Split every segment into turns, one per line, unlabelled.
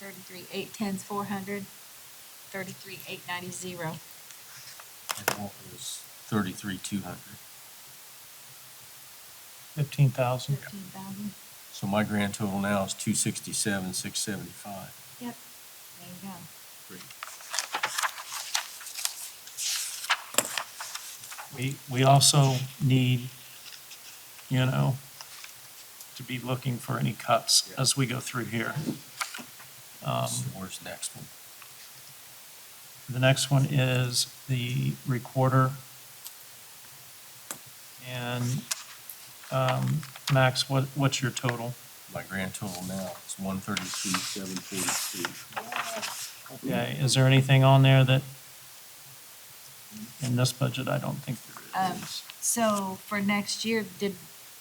Thirty-three, eight tens, four hundred. Thirty-three, eight ninety, zero.
And what was thirty-three, two hundred.
fifteen thousand.
Fifteen thousand.
So my grand total now is two sixty-seven, six seventy-five.
Yep. There you go.
We, we also need, you know, to be looking for any cuts
Yeah.
as we go through here. Um,
So where's the next one?
The next one is the recorder. And um, Max, what, what's your total?
My grand total now is one thirty-two, seven forty-two.
Okay, is there anything on there that, in this budget, I don't think there
Um,
is.
So for next year, did,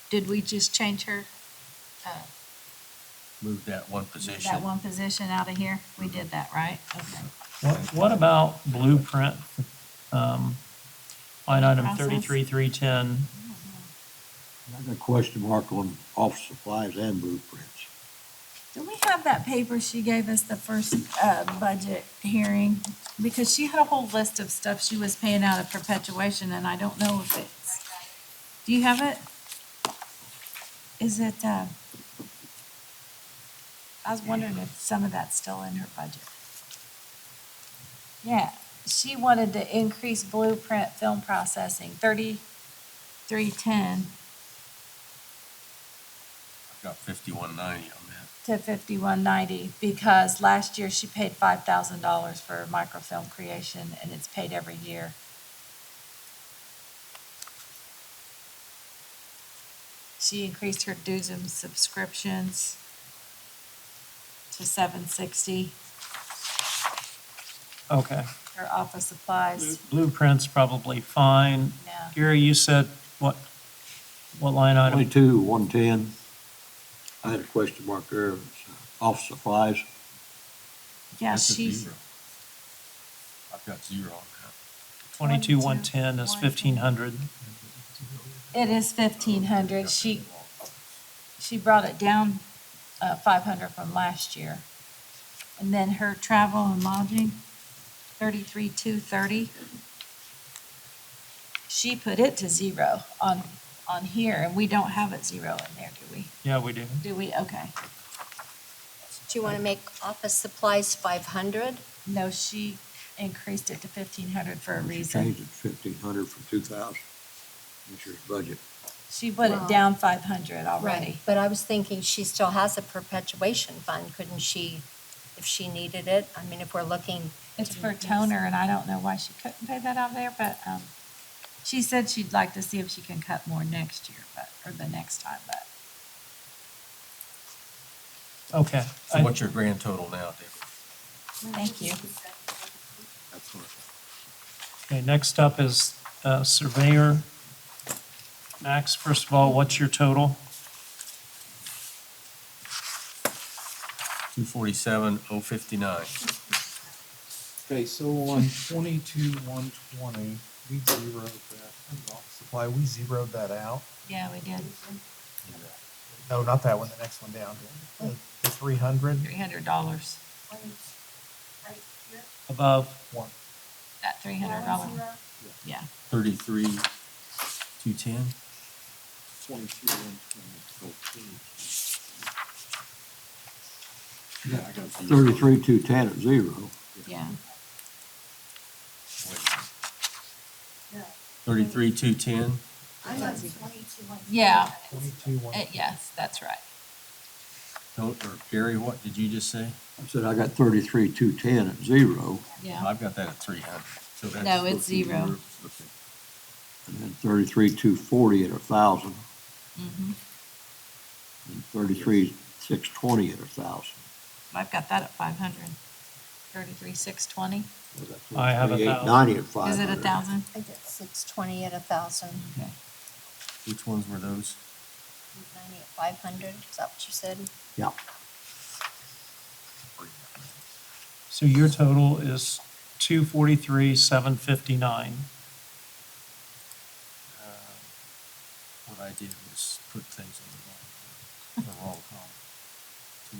did we just change her, uh,
Move that one position.
that one position out of here? We did that, right? Okay.
What, what about blueprint? um, Line item
Process.
thirty-three, three ten,
I got a question mark on office supplies and blueprints.
Do we have that paper she gave us the first, uh, budget hearing? Because she had a whole list of stuff she was paying out of perpetuation, and I don't know if it's, do you have it? Is it, uh, I was wondering if some of that's still in her budget. Yeah, she wanted to increase blueprint film processing, thirty-three ten
I've got fifty-one ninety on that.
to fifty-one ninety, because last year she paid five thousand dollars for microfilm creation, and it's paid every year. She increased her dues and subscriptions to seven sixty,
okay.
her office supplies,
Blueprint's probably fine.
yeah.
Gary, you said what, what line item?
Twenty-two, one-ten. I had a question mark there, It's, uh, office supplies.
Yeah,
That's a
she's,
zero. I've got zero on that.
Twenty-two, one ten is
22,110.
fifteen hundred.
it is fifteen hundred, she, she brought it down, uh, five hundred from last year. And then her travel and lodging, thirty-three, two thirty. She put it to zero on, on here, and we don't have it zero in there, do we?
Yeah, we do.
Do we? Okay.
Do you want to make office supplies five hundred?
No, she increased it to fifteen hundred for a
She
reason.
changed it to fifteen hundred from two thousand. This year's budget.
She put it
Wow.
down five hundred already.
But I was thinking she still has a perpetuation fund, couldn't she, if she needed it? I mean, if we're looking,
It's for toner, and I don't know why she couldn't pay that out of there, but, um, she said she'd like to see if she can cut more next year, but, or the next time, but.
Okay.
So what's your grand total now, David?
Thank you.
That's what I-
Okay, next up is uh, surveyor. Max, first of all, what's your total?
247,059.
Okay, so on twenty-two, one twenty, we zeroed that, office supply, we zeroed that out.
Yeah, we did.
No, not that one, the next one down, the, the three hundred,
Three hundred dollars,
Above,
one,
that three hundred dollar. Yeah,
33, 210?
Twenty-two, Thirty-three, two-ten at zero.
yeah.
Thirty-three, two ten,
Yeah,
twenty-two, one.
eh, yes, that's right.
or Gary, what did you just say?
I said I got thirty-three, two-ten at zero,
Yeah,
I've got that at three hundred, so that's.
No, it's zero.
Okay.
and then thirty-three, two-forty at a thousand,
mm-hmm.
and thirty-three, six-twenty at a thousand.
I've got that at five hundred. Thirty-three, six twenty.
I have a
Thirty-eight,
thousand.
ninety at five
Is
hundred.
it a thousand?
I get six twenty at a thousand,
Which ones were those?
ninety at five hundred, is that what you said?
Yeah.
so your total is two forty-three, seven fifty-nine.
What I did was put things in the wrong, the wrong column.